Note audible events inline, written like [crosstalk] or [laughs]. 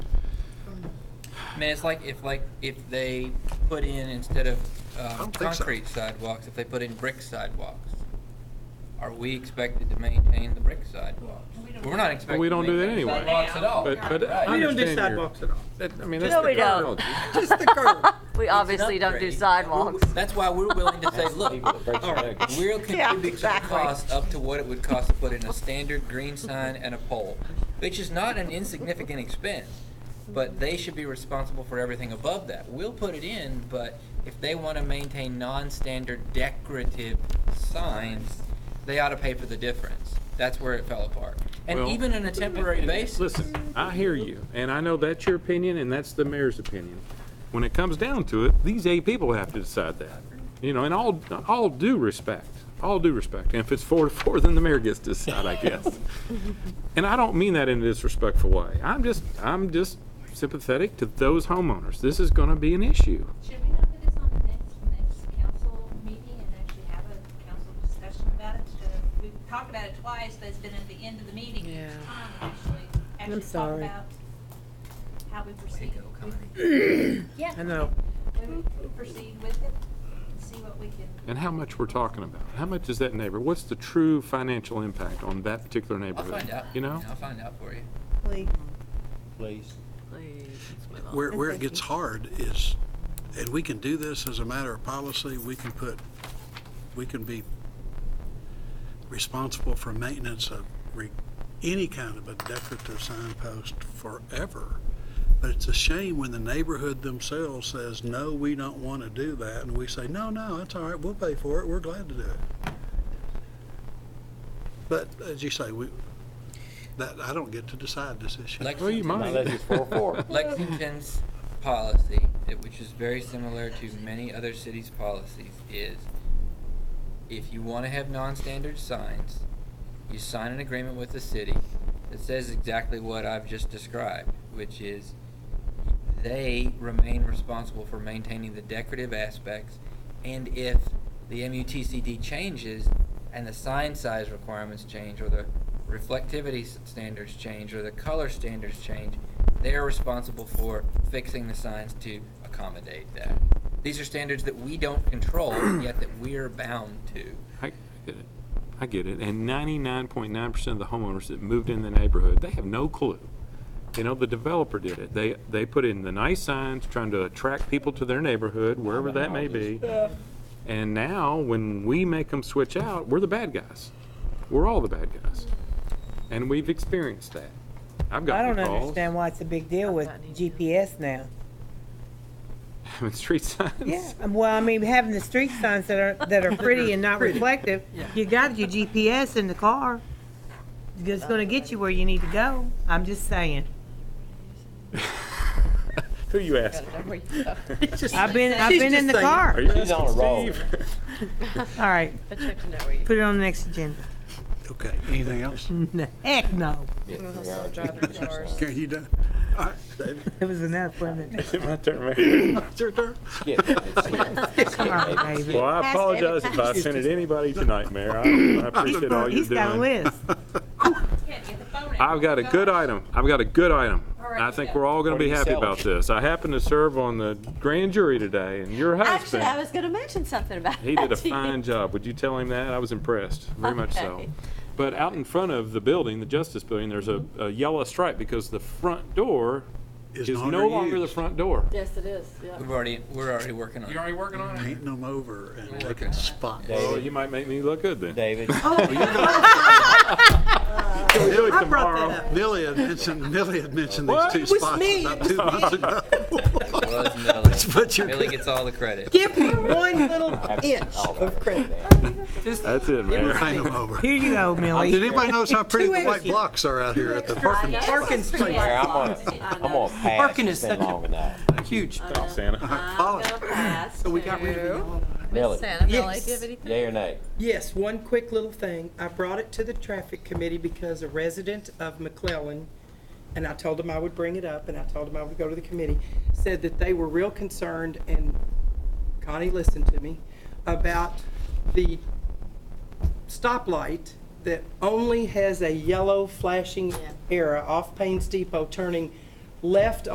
mean, it's like if like if they put in instead of um, don't think so. concrete sidewalks, if they put in brick sidewalks, are we expected to maintain the brick sidewalks? We're not expected. we don't to do that maintain anyway. Sidewalks at all. But, but Right. I We Oh, don't do understand your- sidewalks at all. that- I mean, that's No, the we don't. terminology. Just the [laughs] curb. We obviously don't [laughs] do sidewalks. That's why we're willing to say, look, all right, we'll contribute to the exactly. cost up to what it would cost to put in a standard green sign and a pole, which is not an insignificant expense. But they should be responsible for everything above that. We'll put it in, but if they want to maintain non-standard decorative signs, they ought to pay for the difference. That's where it fell apart. And Well- even on a temporary basis. Listen, I hear you, and I know that's your opinion, and that's the mayor's opinion. When it comes down to it, these eight people have to decide that, you know, and all, all due respect, all due respect. And if it's four to four, then the mayor gets to decide, I [laughs] guess. And I don't mean that in a disrespectful way. I'm just, I'm just sympathetic to those homeowners. This is gonna be an issue. Should we not put this on the next, next council meeting and actually have a council discussion about it? Instead of- We've talked about it twice, but it's been at the end of the meeting. Yeah. It's time to actually, actually talk sorry. about how we proceed. go, [coughs] Yeah. I know. We we proceed with it and see what we can. And how much we're talking about. How much is that neighbor? What's the true financial impact on that particular I'll neighborhood? find out. You know? I'll find out for you. Please. Where, where it gets hard is, and we can do this as a matter of policy, we can put, we can be responsible for maintenance of re- any kind of a decorative signpost forever. But it's a shame when the neighborhood themselves says, no, we don't want to do that, and we say, no, no, that's all right, we'll pay for it, we're glad to do it. But as you say, we, that, I don't get to decide this issue. Lex- Well, you might. Unless it's four, four. [laughs] Lexington's policy, it- which is very similar to many other cities' policies, is if you want to have non-standard signs, you sign an agreement with the city that says exactly what I've just described, which is they remain responsible for maintaining the decorative aspects, and if the MUTCD changes and the sign size requirements change, or the reflectivity s- standards change, or the color standards change, they are responsible for fixing the signs to accommodate that. These are standards that we don't control, yet that we are bound to. I I get it. I get it. And ninety-nine point nine percent of the homeowners that moved in the neighborhood, they have no clue. You know, the developer did it. They, they put in the nice signs, trying to attract people to their neighborhood, wherever that may be. And now, when we make them switch out, we're the bad guys. We're all the bad guys. And we've experienced that. I've I gotten don't calls. understand why it's a big deal with GPS now. [laughs] Having street signs. Yeah, um, well, I mean, having the street signs that are, that are pretty and not reflective, you got your GPS in the car. It's gonna get you where you need to go. I'm just saying. Who you asking? I've been, I've She's been in just the saying. car. Are you She's on a roll. Steve? All right, put it on the next agenda. [laughs] Okay, anything else? No, Heck no. Karen, you done? All right, David, It was enough, [laughs] wasn't it? Is it [laughs] my turn, Mayor? it's your turn. Come on, baby. Well, I apologize if I offended anybody tonight, Mayor. I I appreciate all you're He's got a doing. list. Can't get the phone out. I've got a good item. I've got a good item. I think we're all going to be What are you happy about this. I happened to serve on the grand jury today, and your Actually, I husband, was going to mention something about he did a that to you. fine job. Would you tell him that? I was impressed, very much so. Okay. But out in front of the building, the Justice Building, there's a a yellow stripe because the front door Is is no no longer longer the used. front door. Yes, it is, yeah. We've already, we're already working on it. already working on Painting them over and making spots. Oh, you might make me look good then. David, Oh, Can we do it I brought that tomorrow? up. Millie had mentioned, Millie had mentioned What? these two It was spots me. about two months ago. Was Millie. But you're, Millie gets all the credit. Give me one little inch of credit. That's it, Mayor. [laughs] paint them over. Here you go, Did Millie. anybody notice how pretty the white extra- blocks are out here at the parking? lot? Perkins Street, Mayor, I'm gonna, I'm gonna pass. Parking is It's been such a- long enough. huge. Oh, Santa. I'm going to pass So we got rid of it to all. Millie, Santa Valley. Yes. Do you have anything? yay or nay? Yes, one quick little thing. I brought it to the traffic committee because a resident of McClellan, and I told him I would bring it up, and I told him I would go to the committee, said that they were real concerned, and Connie listened to me, about the stoplight that only has a yellow flashing arrow off Payne's Depot turning left